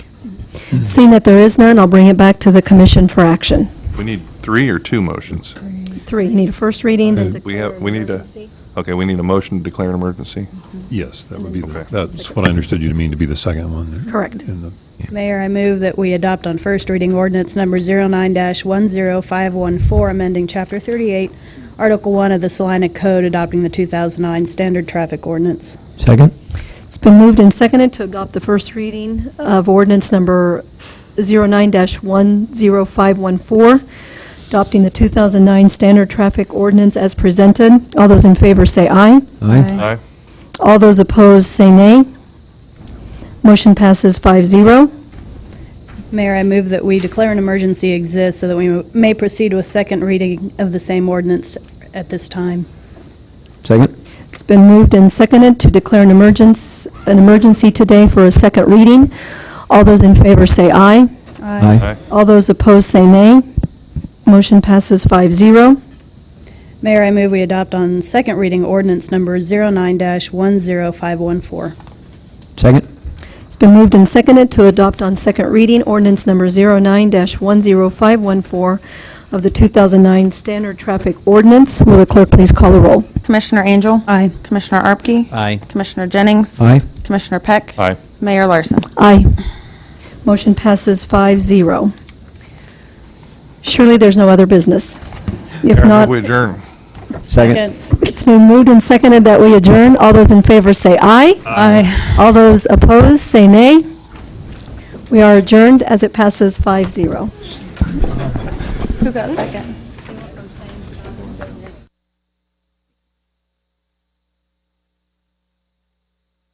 Seeing that there is none, I'll bring it back to the commission for action. We need three or two motions? Three, you need a first reading, then We declare have, an we need a, emergency. okay, we need a motion to declare an emergency? Yes, that would be, the- Okay. that's what I understood you to mean to be the second one. Correct. In the- Mayor, I move that we adopt on first reading ordinance number 09-10514, amending Chapter 38, Article 1 of the Salina Code, adopting the 2009 standard traffic ordinance. Second? It's been moved and seconded to adopt the first reading of ordinance number 09-10514, adopting the 2009 standard traffic ordinance as presented. All those in favor say aye. Aye. Aye. All those opposed say nay. Motion passes 5-0. Mayor, I move that we declare an emergency exists so that we may proceed with second reading of the same ordinance at this time. Second? It's been moved and seconded to declare an emergence, an emergency today for a second reading. All those in favor say aye. Aye. All those opposed say nay. Motion passes 5-0. Mayor, I move we adopt on second reading ordinance number 09-10514. Second? It's been moved and seconded to adopt on second reading ordinance number 09-10514 of the 2009 Standard Traffic Ordinance. Will the clerk please call the roll? Commissioner Angel? Aye. Commissioner Arpke? Aye. Commissioner Jennings? Aye. Commissioner Peck? Aye. Mayor Larson? Aye. Motion passes 5-0. Surely there's no other business? If Mayor, I move not... We adjourn. Second? It's been moved and seconded that we adjourn. All those in favor say aye. Aye. All those opposed, say nay. We are adjourned as it passes 5-0. Who got second?